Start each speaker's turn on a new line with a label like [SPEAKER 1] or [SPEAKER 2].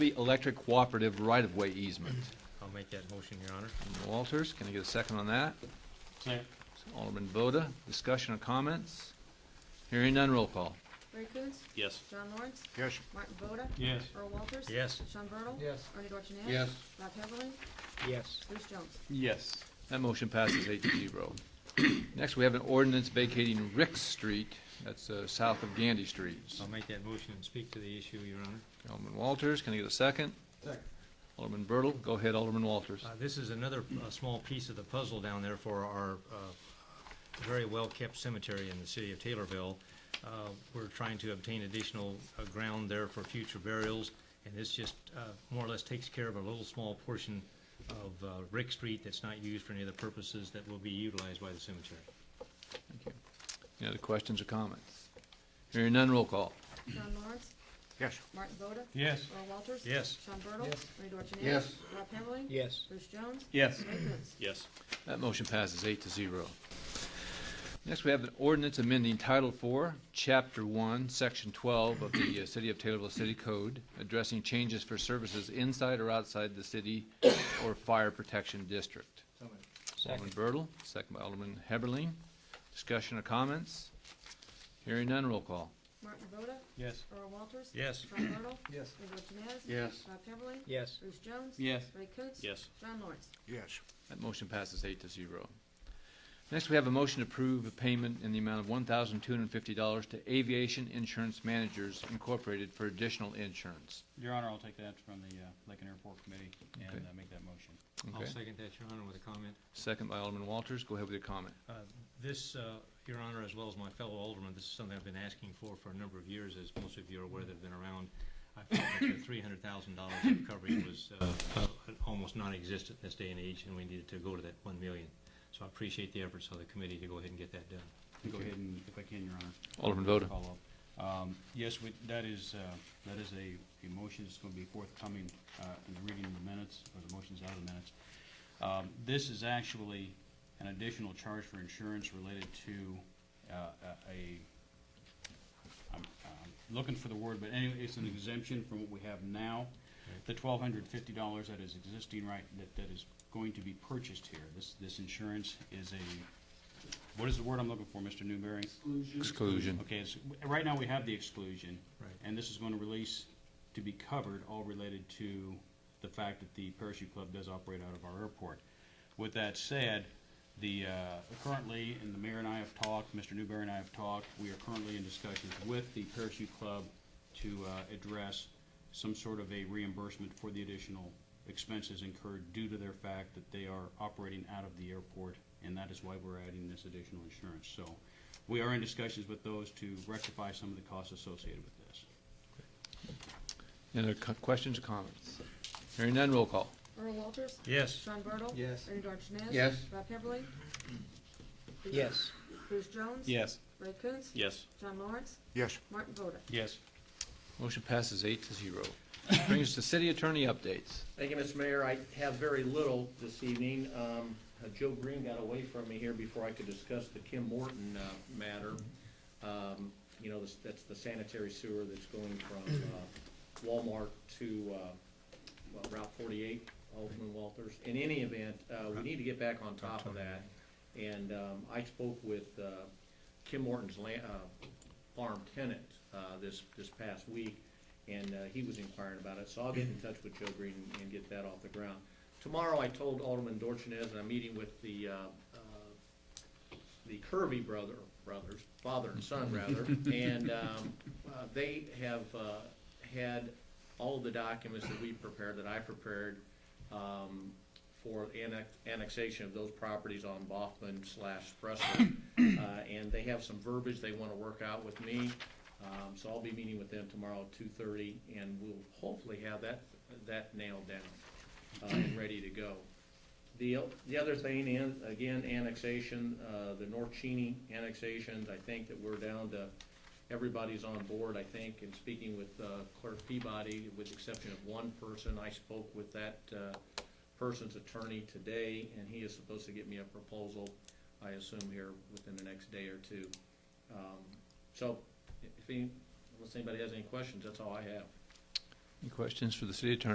[SPEAKER 1] The Electric Cooperative right-of-way easement.
[SPEAKER 2] I'll make that motion, Your Honor.
[SPEAKER 1] Walters, can I get a second on that?
[SPEAKER 3] Second.
[SPEAKER 1] Alderman Boda, discussion or comments? Hearing none, roll call.
[SPEAKER 4] Ray Coons,
[SPEAKER 3] Yes.
[SPEAKER 4] John Lawrence,
[SPEAKER 5] Yes.
[SPEAKER 4] Martin Voda,
[SPEAKER 3] Yes.
[SPEAKER 4] Earl Walters.
[SPEAKER 2] Yes.
[SPEAKER 4] Sean Bertle.
[SPEAKER 5] Yes.
[SPEAKER 4] Ernie Dorchenez.
[SPEAKER 5] Yes.
[SPEAKER 4] Rob Heatherling,
[SPEAKER 5] Yes.
[SPEAKER 4] Bruce Jones.
[SPEAKER 3] Yes.
[SPEAKER 1] That motion passes eight to zero. Next, we have an ordinance vacating Rick Street, that's uh, south of Gandy Street.
[SPEAKER 2] I'll make that motion and speak to the issue, Your Honor.
[SPEAKER 1] Alderman Walters, can I get a second?
[SPEAKER 5] Second.
[SPEAKER 1] Alderman Bertle, go ahead, Alderman Walters.
[SPEAKER 2] Uh, This is another uh, small piece of the puzzle down there for our uh, very well-kept cemetery in the city of Taylorville. Uh, We're trying to obtain additional uh, ground there for future burials, and this just uh, more or less takes care of a little small portion of uh, Rick Street that's not used for any other purposes that will be utilized by the cemetery.
[SPEAKER 1] Any other questions or comments? Hearing none, roll call.
[SPEAKER 4] John Lawrence,
[SPEAKER 5] Yes.
[SPEAKER 4] Martin Voda,
[SPEAKER 3] Yes.
[SPEAKER 4] Earl Walters.
[SPEAKER 2] Yes.
[SPEAKER 4] Sean Bertle.
[SPEAKER 5] Yes.
[SPEAKER 4] Ernie Dorchenez.
[SPEAKER 5] Yes.
[SPEAKER 4] Rob Heatherling.
[SPEAKER 5] Yes.
[SPEAKER 4] Bruce Jones.
[SPEAKER 3] Yes.
[SPEAKER 4] Ray Coons.
[SPEAKER 3] Yes.
[SPEAKER 1] That motion passes eight to zero. Next, we have an ordinance amending Title IV, Chapter 1, Section 12 of the uh, City of Taylorville City Code, addressing changes for services inside or outside the city or fire protection district. Alderman Bertle, second by Alderman Heberlin. Discussion or comments? Hearing none, roll call.
[SPEAKER 4] Martin Voda,
[SPEAKER 3] Yes.
[SPEAKER 4] Earl Walters.
[SPEAKER 2] Yes.
[SPEAKER 4] Sean Bertle.
[SPEAKER 5] Yes.
[SPEAKER 4] Ernie Dorchenez.
[SPEAKER 5] Yes.
[SPEAKER 4] Rob Heatherling.
[SPEAKER 5] Yes.
[SPEAKER 4] Bruce Jones.
[SPEAKER 3] Yes.
[SPEAKER 4] Ray Coons.
[SPEAKER 3] Yes.
[SPEAKER 4] John Lawrence.
[SPEAKER 5] Yes.
[SPEAKER 1] That motion passes eight to zero. Next, we have a motion to approve a payment in the amount of one thousand two hundred and fifty dollars to Aviation Insurance Managers Incorporated for additional insurance.
[SPEAKER 6] Your Honor, I'll take that from the uh, Lincoln Airport Committee
[SPEAKER 1] Okay.
[SPEAKER 6] and uh, make that motion.
[SPEAKER 2] I'll
[SPEAKER 1] Okay.
[SPEAKER 2] second that, Your Honor, with a comment.
[SPEAKER 1] Second by Alderman Walters. Go ahead with your comment.
[SPEAKER 2] Uh, This, uh, Your Honor, as well as my fellow aldermen, this is something I've been asking for for a number of years, as most of you are aware that have been around. I felt that the three hundred thousand dollars of coverage was uh, uh, almost non-existent in this day and age, and we needed to go to that one million. So I appreciate the efforts of the committee to go ahead and get that done.
[SPEAKER 6] Go ahead and, if I can, Your Honor.
[SPEAKER 1] Alderman Voda.
[SPEAKER 6] Follow up. Um, Yes, we- that is, uh, that is a, a motion that's going to be forthcoming uh, in the reading of the minutes, or the motions out of the minutes. Um, This is actually an additional charge for insurance related to uh, a, a- I'm I'm looking for the word, but anyway, it's an exemption from what we have now. The twelve hundred fifty dollars that is existing right, that, that is going to be purchased here. This, this insurance is a, what is the word I'm looking for, Mr. Newberry?
[SPEAKER 1] Exclusion.
[SPEAKER 6] Okay, it's, right now we have the exclusion.
[SPEAKER 2] Right.
[SPEAKER 6] And this is going to release to be covered, all related to the fact that the parachute club does operate out of our airport. With that said, the, uh, currently, and the mayor and I have talked, Mr. Newberry and I have talked, we are currently in discussions with the parachute club to, uh, address some sort of a reimbursement for the additional expenses incurred due to their fact that they are operating out of the airport, and that is why we're adding this additional insurance. So, we are in discussions with those to rectify some of the costs associated with this.
[SPEAKER 1] Any other co- questions or comments? Hearing none, roll call.
[SPEAKER 4] Earl Walters.
[SPEAKER 2] Yes.
[SPEAKER 4] Sean Bertle.
[SPEAKER 5] Yes.
[SPEAKER 4] Ernie Dorchenez.
[SPEAKER 5] Yes.
[SPEAKER 4] Rob Heatherling.
[SPEAKER 5] Yes.
[SPEAKER 4] Bruce Jones.
[SPEAKER 6] Yes.
[SPEAKER 4] Ray Coons.
[SPEAKER 3] Yes.
[SPEAKER 4] John Lawrence.
[SPEAKER 5] Yes.
[SPEAKER 4] Martin Voda.
[SPEAKER 6] Yes.
[SPEAKER 1] Motion passes eight to zero. Brings us to city attorney updates.
[SPEAKER 7] Thank you, Mr. Mayor. I have very little this evening. Um, uh, Joe Green got away from me here before I could discuss the Kim Morton, uh, matter. Um, you know, this- that's the sanitary sewer that's going from, uh, Walmart to, uh, well, Route forty-eight, Alderman Walters. In any event, uh, we need to get back on top of that. And, um, I spoke with, uh, Kim Morton's la- uh, farm tenant, uh, this, this past week, and, uh, he was inquiring about it, so I'll get in touch with Joe Green and- and get that off the ground. Tomorrow, I told Alderman Dorchenez, and I'm meeting with the, uh, uh, the Curvy brother, brothers, father and son rather, and um, uh, they have uh, had all the documents that we prepared, that I prepared, um, for annex, annexation of those properties on Baughman slash Spresso. Uh, and they have some verbiage they want to work out with me, um, so I'll be meeting with them tomorrow at two thirty, and we'll hopefully have that, that nailed down, uh, and ready to go. The, o- the other thing, and again, annexation, uh, the North Cheney annexations, I think that we're down to, everybody's on board, I think, and speaking with uh, Clerk Peabody, with the exception of one person, I spoke with that, uh, person's attorney today, and he is supposed to get me a proposal, I assume here within the next day or two. Um, So, if any, unless anybody has any questions, that's all I have.
[SPEAKER 1] Any questions for the city attorney?